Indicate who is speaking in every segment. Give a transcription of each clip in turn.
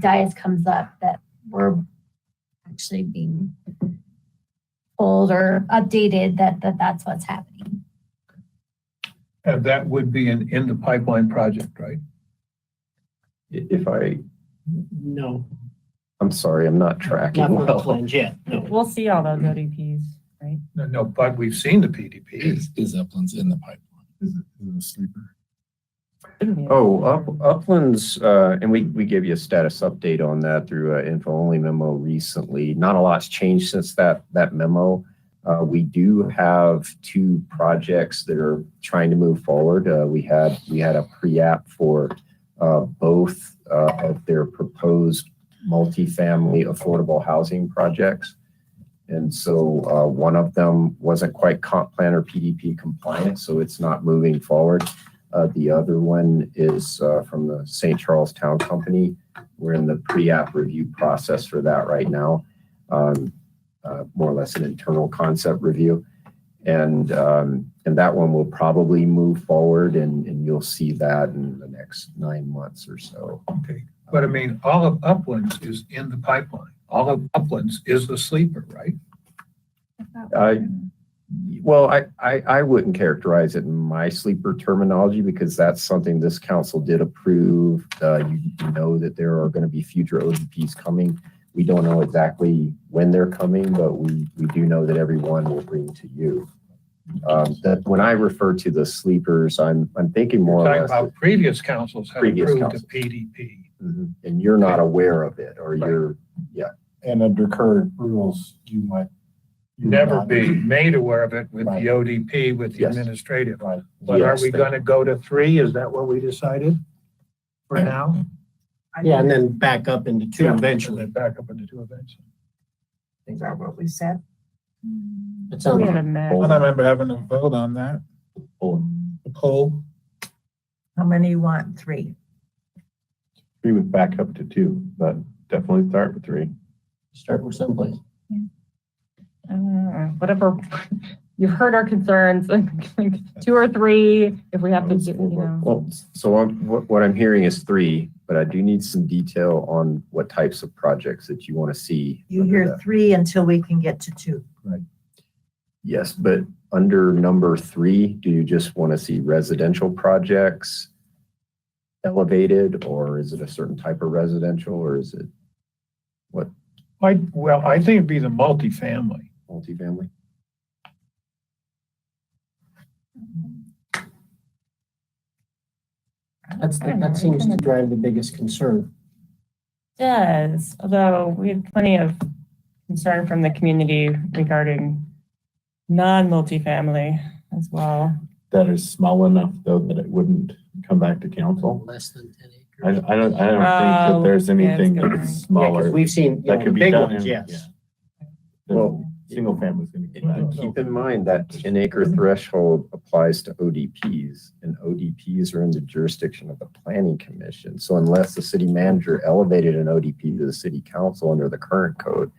Speaker 1: guys comes up that we're actually being told or updated that, that that's what's happening.
Speaker 2: And that would be an in the pipeline project, right?
Speaker 3: I- If I,
Speaker 4: No,
Speaker 3: I'm sorry, I'm not
Speaker 4: not
Speaker 3: tracking
Speaker 4: for the
Speaker 3: well.
Speaker 4: plunge yet, no.
Speaker 5: We'll see all those
Speaker 3: Mm-hmm.
Speaker 5: ODPs, right?
Speaker 2: No, No, but we've seen the PDP.
Speaker 6: Is, is Uplands in the pipeline? Is it, is it a sleeper?
Speaker 3: Oh, Up- Uplands, uh, and we, we gave you a status update on that through an info-only memo recently. Not a lot's changed since that, that memo. Uh, we do have two projects that are trying to move forward. Uh, we had, we had a pre-app for, uh, both, uh, of their proposed multifamily affordable housing projects. And so, uh, one of them wasn't quite comp plan or PDP compliant, so it's not moving forward. Uh, the other one is uh, from the St. Charles Town Company. We're in the pre-app review process for that right now. Um, uh, more or less an internal concept review. And, um, and that one will probably move forward and, and you'll see that in the next nine months or so.
Speaker 2: Okay. But I mean, all of Uplands is in the pipeline. All of Uplands is the sleeper, right?
Speaker 3: Uh, Well, I, I, I wouldn't characterize it in my sleeper terminology because that's something this council did approve. Uh, you you know that there are going to be future ODPs coming. We don't know exactly when they're coming, but we, we do know that everyone will bring to you. Um, that when I refer to the sleepers, I'm, I'm thinking more
Speaker 2: Talking
Speaker 3: or less,
Speaker 2: about previous councils have
Speaker 3: Previous
Speaker 2: approved
Speaker 3: councils.
Speaker 2: the PDP.
Speaker 3: Mhm. and you're not aware of it or
Speaker 2: Right.
Speaker 3: you're,
Speaker 6: And under current rules, you might. you would
Speaker 2: Never
Speaker 6: not-
Speaker 2: be made aware of it with the
Speaker 6: Right.
Speaker 2: ODP, with the
Speaker 3: Yes.
Speaker 2: administrative.
Speaker 6: Right.
Speaker 2: But are
Speaker 3: Yes,
Speaker 2: we
Speaker 3: they-
Speaker 2: going to go to three? Is that what we decided for now?
Speaker 4: Yeah, and then back up into two eventually.
Speaker 2: Back up into two events.
Speaker 7: Is that what we said?
Speaker 4: It
Speaker 5: So we
Speaker 4: sounds-
Speaker 5: had a mess.
Speaker 3: Hold
Speaker 6: I remember having a vote on that,
Speaker 3: oh,
Speaker 6: a poll.
Speaker 7: How many you want? Three.
Speaker 3: we would back up to two, but definitely start with three.
Speaker 4: Start with someplace.
Speaker 5: Uh, Whatever, you've heard our concerns, two or three, if we have to, get, you know.
Speaker 3: Well, so I'm, what, what I'm hearing is three, but I do need some detail on what types of projects that you want to see.
Speaker 7: You
Speaker 3: under
Speaker 7: hear
Speaker 3: that.
Speaker 7: three until we can get to two.
Speaker 3: Yes, but under number three, do you just want to see residential projects elevated, or is it a certain type of residential, or is it
Speaker 2: I, well, I think it'd be the multifamily.
Speaker 3: multifamily?
Speaker 4: That's, the- that seems to drive the biggest concern.
Speaker 5: Does, although we had plenty of concern from the community regarding non-multifamily as well.
Speaker 8: that is small enough though that it wouldn't come back to council?
Speaker 4: Less than ten
Speaker 8: I, I
Speaker 4: acres.
Speaker 8: don't, I don't think
Speaker 5: Oh,
Speaker 8: that there's
Speaker 5: yeah, that's
Speaker 8: anything
Speaker 5: good
Speaker 8: that's
Speaker 4: Yeah, because
Speaker 8: smaller.
Speaker 4: we've seen, you
Speaker 8: That
Speaker 4: know, the
Speaker 8: could be
Speaker 4: big
Speaker 8: done
Speaker 4: ones,
Speaker 8: in-
Speaker 4: yes.
Speaker 8: yeah.
Speaker 3: Well,
Speaker 8: Single family's gonna be.
Speaker 3: And Keep in mind that 10 acre threshold applies to ODPs and ODPs are in the jurisdiction of the planning commission. So unless the city manager elevated an ODP to the city council under the current code,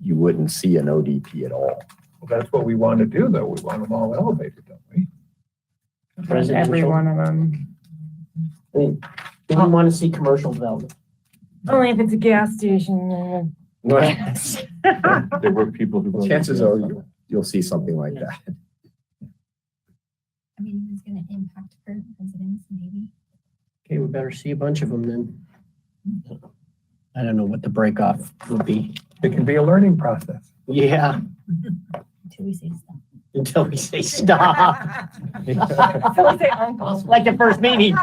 Speaker 3: you wouldn't see an ODP at all.
Speaker 2: Well, That's what we want to do, though. We want them all elevated, don't we?
Speaker 5: Every
Speaker 4: Residential.
Speaker 5: one of them.
Speaker 4: I mean, We don't want to see commercial development.
Speaker 5: Only if it's a gas station.
Speaker 8: There were people who. voted
Speaker 3: Chances
Speaker 8: yes
Speaker 3: are
Speaker 8: on
Speaker 3: you- you'll see something like that.
Speaker 1: I mean, it's gonna impact current residents maybe.
Speaker 4: Okay, we better see a bunch of them then. I don't know what the break off would be.
Speaker 2: It can be a learning process.
Speaker 4: Yeah,
Speaker 1: Until we say stop.
Speaker 4: until we say stop.
Speaker 5: So we say uncles.
Speaker 4: Like the first meeting.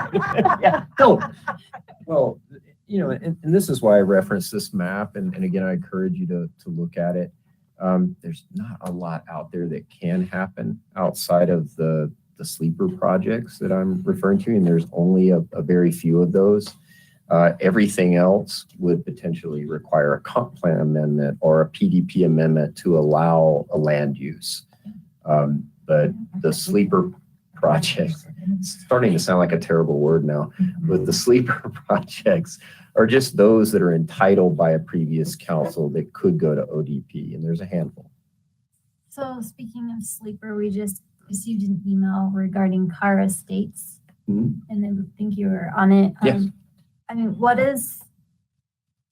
Speaker 4: Yeah, Go.
Speaker 3: Well, you know, and, and this is why I reference this map, and, and again, I encourage you to, to look at it. Um, there's not a lot out there that can happen outside of the, the sleeper projects that I'm referring to, and there's only a, a very few of those. Uh, everything else would potentially require a comp plan amendment or a PDP amendment to allow a land use. Um, but the sleeper project it's starting to sound like a terrible word now, but the sleeper projects are just those that are entitled by a previous council that could go to ODP, and there's a handful.
Speaker 1: So speaking of sleeper, we just received an email regarding Cara Estates.
Speaker 3: Mhm.
Speaker 1: And I think you were on it.
Speaker 3: Yes.
Speaker 1: Um, I mean, what is